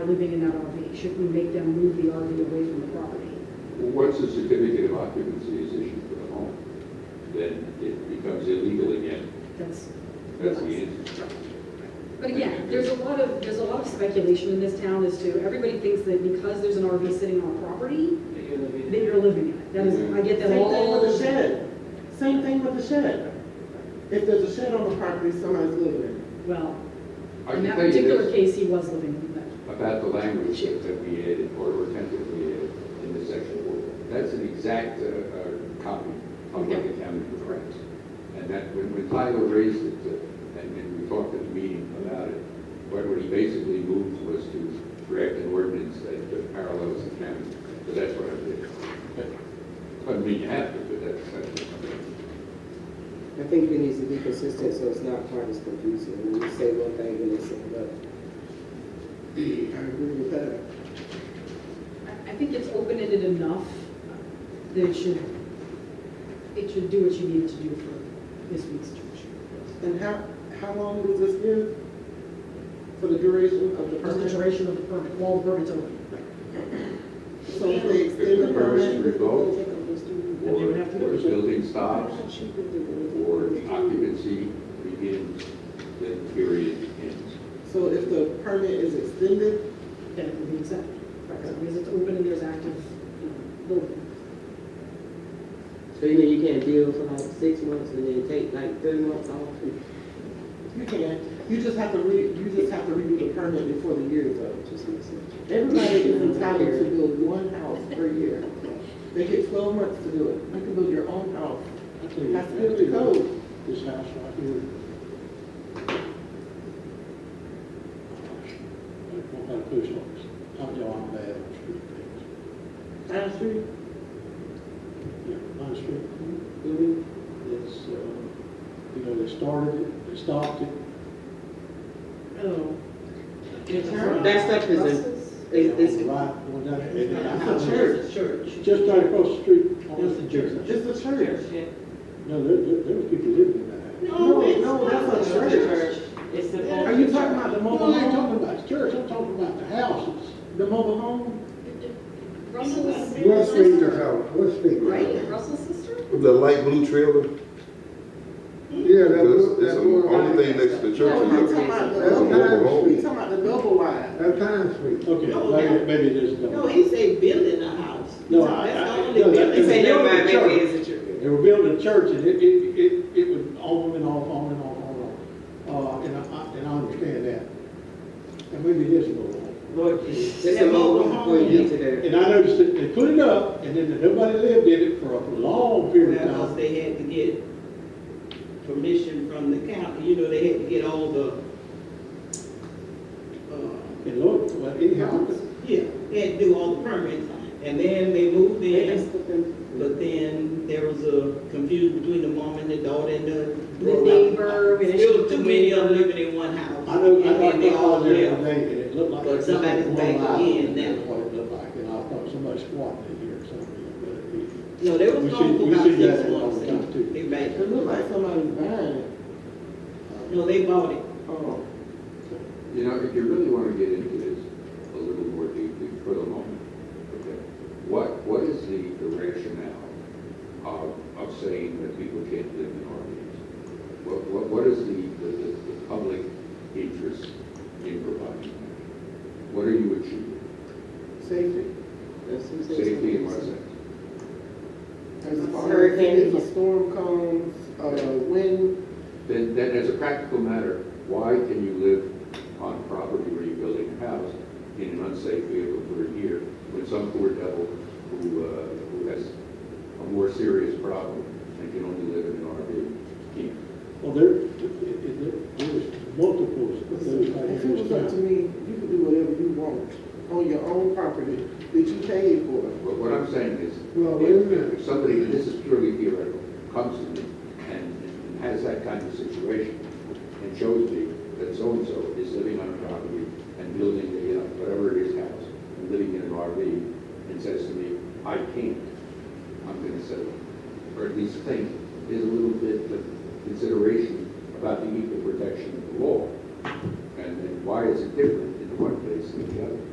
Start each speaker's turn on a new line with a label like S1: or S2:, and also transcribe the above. S1: are living in that RV. Should we make them move the RV away from the property?
S2: Once a certificate of occupancy is issued for the home, then it becomes illegal again.
S1: That's.
S2: That's the answer.
S1: But again, there's a lot of, there's a lot of speculation in this town as to, everybody thinks that because there's an RV sitting on a property,
S3: that you're living
S1: that
S3: in.
S1: you're living in it. That is, I get that
S4: Same thing with
S1: all.
S4: the shed. Same thing with the shed. If there's a shed on the property, somebody's living in it.
S1: Well,
S2: I
S1: in
S2: can
S1: that
S2: tell you
S1: particular
S2: this
S1: case, he was living in that.
S2: about the language that we added, or tentatively added in the section four. That's an exact uh, uh, copy of what the county provides. And that, when when Tyler raised it, uh, and and we talked at the meeting about it, what what he basically moved was to draft an ordinance that uh, parallels the county, so that's what I did. Doesn't mean you have to, but that's, that's what I did.
S5: I think we need to be consistent so it's not quite as confusing. When we say one thing and they say another.
S4: I agree with that.
S1: I I think it's open-ended enough that it should, it should do what you need it to do for this week's church.
S4: And how, how long was this give? For the duration of the
S1: Just the
S4: permit?
S1: duration of the permit, while the permit's open.
S4: So if they extend the
S2: If the permit's
S4: permit?
S2: revoked,
S1: And they would have to go
S2: Or, or
S1: to-
S2: building stops, or occupancy begins, then period ends.
S4: So if the permit is extended,
S1: then it will be accepted. So, Because it's open and there's active, you know, building.
S5: So you mean you can't build for like six months and then take like three months off?
S4: you can. You just have to re, you just have to redo the permit before the year is up. Everybody is entitled to build one house per year. They get twelve months to do it. You can build your own house.
S6: I tell you,
S4: That's good to go.
S6: This house right here. Don't have a post office. I'm down bad on street things.
S4: Down the street,
S6: Yeah, on street.
S4: Mhm.
S6: It's, uh, you know, they started it, they stopped it.
S1: Oh.
S5: That stuff is, a- is,
S6: They
S5: is,
S6: were Right, going down
S4: It's a
S6: there.
S4: church.
S6: Just right across the street.
S3: It's a church.
S4: It's a church.
S6: No, there, there, there was people living in that.
S4: No, no, that's a church.
S5: It's
S4: Are you talking about the
S6: No,
S4: mobile
S6: I ain't
S4: home?
S6: talking about the church, I'm talking about the houses.
S4: The mobile home?
S1: Russell's,
S7: What's Peter's house? What's Peter's?
S1: right, Russell's sister?
S8: The light blue trailer, that's
S7: Yeah, that was,
S8: that's
S7: that
S8: the
S7: was,
S8: only thing next to the
S4: No, I'm talking
S8: church.
S4: about the
S7: That's a
S4: double-
S8: mobile home.
S4: we talking about the double wide.
S7: that time street.
S6: Okay, maybe, maybe it is. double.
S4: he said building a house.
S6: No, I- I- no, that-
S5: You say,
S6: they
S5: never
S6: were
S5: mind,
S6: building a
S5: maybe
S6: church.
S5: it's a church.
S6: They were building a church, and it, it, it, it would on and off, on and off, on and off. Uh, and I- I, and I understand that. And maybe it is a little.
S5: Lord, it's a mobile home before you get to there.
S6: And I noticed that they put it up, and then nobody lived in it for a long period of
S9: Because
S6: time.
S9: they had to get permission from the county, you know, they had to get all the, uh,
S6: And look, well, anyhow,
S9: yeah, they had to do all the permits. And then they moved in, but then there was a confusion between the mom and the daughter and the.
S1: The neighbor, we had issues
S9: Still
S1: with the
S9: too many of them
S1: neighbor.
S9: living in one house.
S6: I know, I
S9: And
S6: know,
S9: then
S6: they
S9: they
S6: all
S9: all
S6: there
S9: left.
S6: today, and it looked like.
S9: But
S6: it's
S9: somebody's
S6: one
S9: back
S6: house,
S9: again
S6: and
S9: now.
S6: that's What it looked like, and I thought somebody squatting in here or something.
S9: No, they
S6: We
S9: was
S6: see-
S9: gone for
S6: we
S9: about
S6: see that
S9: six
S6: all the time,
S9: months.
S6: too.
S9: They back,
S4: It looked like somebody's buying it.
S9: no, they bought it.
S4: Oh,
S2: You know, if you really want to get into this a little more deeply for the moment, okay? What, what is the the rationale of, of saying that people can't live in RVs? What, what, what is the, the, the the public interest in providing that? What are you achieving?
S4: safety.
S2: Safety in what sense?
S4: As far as if a storm comes, uh, wind,
S2: Then, then as a practical matter, why can you live on property where you're building a house in an unsafe vehicle for a year when some poor devil who, uh, who has a more serious problem and can only live in an RV can't?
S6: Well, there, it- it- there was multiples of those right
S4: if
S6: here.
S4: it was up to me, you could do whatever you want on your own property that you paid for.
S2: But what I'm saying is,
S7: Well, wait a
S2: if-
S7: minute.
S2: if somebody, and this is purely theoretical, comes to me and and has that kind of situation and shows me that so-and-so is living on a property and building a, you know, whatever it is, house, and living in an RV, and says to me, I can't, I'm gonna settle. Or at least think, there's a little bit of consideration about the equal protection of the law. And then why is it different in one case place than the other.